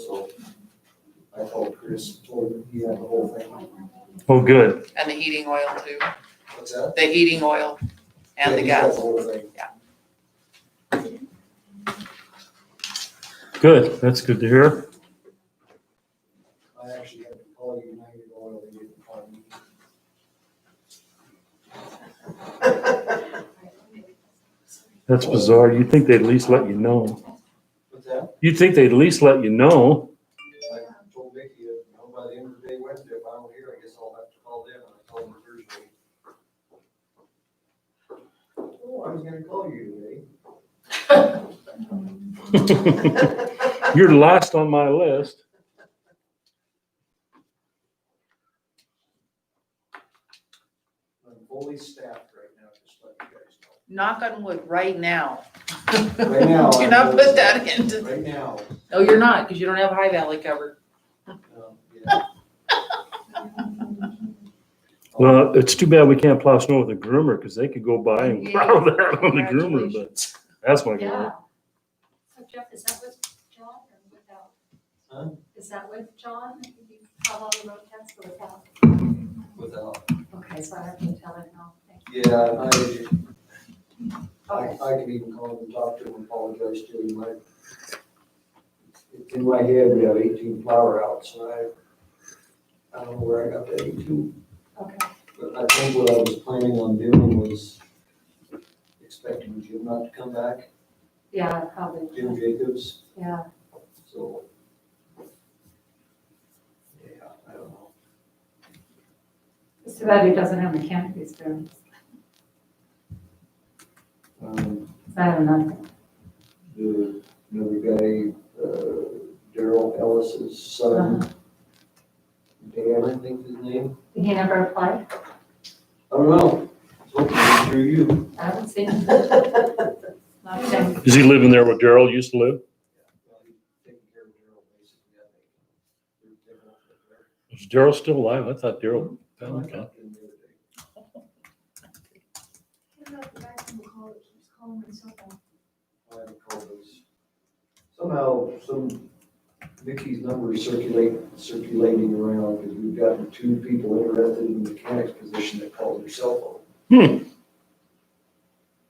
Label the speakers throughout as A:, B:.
A: so I told Chris, told him he had the whole thing.
B: Oh, good.
C: And the heating oil too,
A: What's that?
C: the heating oil and the
A: Yeah, he got
C: gas.
A: The whole thing.
B: Good. That's good to hear.
A: I actually had to call United Oil, they didn't call me.
B: That's bizarre. You'd think they'd at least let you know.
A: What's that?
B: You'd think they'd at least let you know.
A: I told Vicky, you know, by the end of the day Wednesday, if I don't hear, I guess I'll have to call them, and I told them Thursday. Oh, I was gonna call you
B: You're last on my list.
A: today, I'm fully staffed right now, just let you guys know.
C: Knock on wood, right now.
A: Right now,
C: Do
A: I'm
C: not
A: really-
C: put that into,
A: Right now.
C: no, Oh, you're not, because you don't have High Valley covered.
A: um, yeah.
B: Well, it's too bad we can't plow snow with a groomer because they could go by and plow that on the groomer, but that's my
D: Yeah.
B: goal.
D: So Jeff, is that with John or without?
A: Huh?
D: Is that with John? You call all the road tax or without?
A: Without,
D: Okay, so I have to tell it now. Thank
A: yeah, I,
D: you.
A: I,
D: Okay.
A: I can even call him and talk to him and apologize to him, like. It's in my head, we have eighteen flower outs, and I, I don't know where I got that eighteen,
D: Okay.
A: but I think what I was planning on doing was expecting Jim not to come back,
D: Yeah, probably.
A: Jim Jacobs,
D: Yeah.
A: so. Yeah, I don't know,
D: It's too bad he doesn't have mechanic experience.
A: um,
D: I don't know.
A: the, another guy, uh, Daryl Ellis's son. Dan, I think his name,
D: He never applied?
A: I don't know, hopefully through you.
D: I haven't seen him. Not him.
B: Is he living there where Daryl used to live? Is Daryl still alive? I thought Daryl.
A: Somehow, some, Vicky's number is circulating, circulating around, because we've gotten two people interested in the mechanics position that called their cell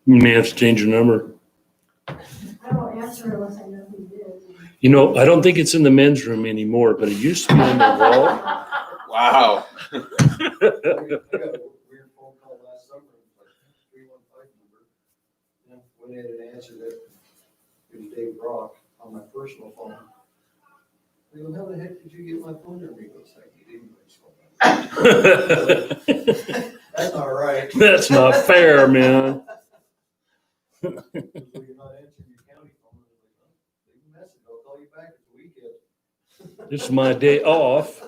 B: May have to change your number.
E: I won't answer unless I know who it is.
B: You know, I don't think it's in the men's room anymore, but it used to be on the wall.
A: phone.
F: Wow.
A: I got a Weird phone call last summer, like, three one five number. And Went in and answered it, it was Dave Brock on my personal phone. I go, how the heck did you get my phone number? He goes, I get anybody's phone number. That's not right.
B: That's not fair, man.
A: Well, you're not answering your county phone. I'm like, "Oh, Leave a message, I'll call you back at the weekend.
B: This is my day off.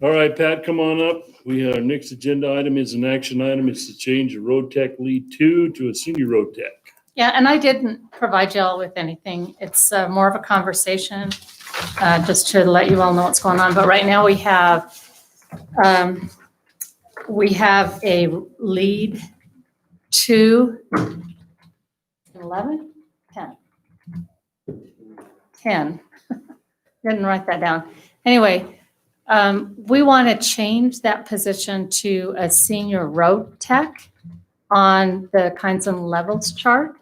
B: All right, Pat, come on up. We, our next agenda item is an action item. It's to change the road tech lead two to a senior road tech.
G: Yeah, and I didn't provide y'all with anything. It's uh, more of a conversation, uh, just to let you all know what's going on. But right now, we have, um, we have a lead two, 11, 10. 10. Didn't write that down. Anyway, um, we want to change that position to a senior road tech on the kinds and levels chart.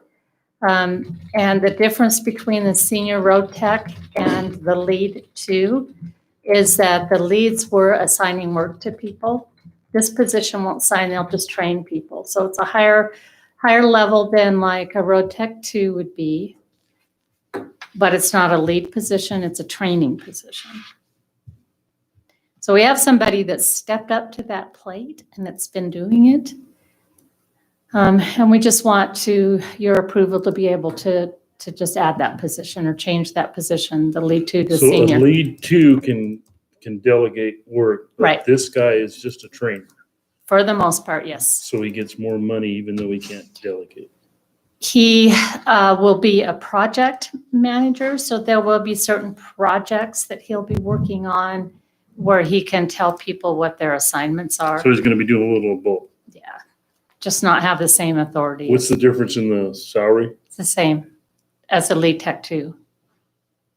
G: Um, And the difference between the senior road tech and the lead two is that the leads were assigning work to people. This position won't sign, they'll just train people. So it's a higher, higher level than like a road tech two would be. But it's not a lead position, it's a training position. So we have somebody that's stepped up to that plate and that's been doing it. Um, And we just want to, your approval to be able to, to just add that position or change that position, the lead two to
B: So uh, a
G: senior.
B: lead two can, can delegate work. but
G: Right.
B: This guy is just a trainer,
G: For the most part, yes.
B: so he gets more money even though he can't delegate.
G: He uh, will be a project manager, so there will be certain projects that he'll be working on where he can tell people what their assignments are.
B: So he's gonna be doing a little of both.
G: Yeah, just not have the same authority.
B: What's the difference in the salary?
G: It's the same as a lead tech two.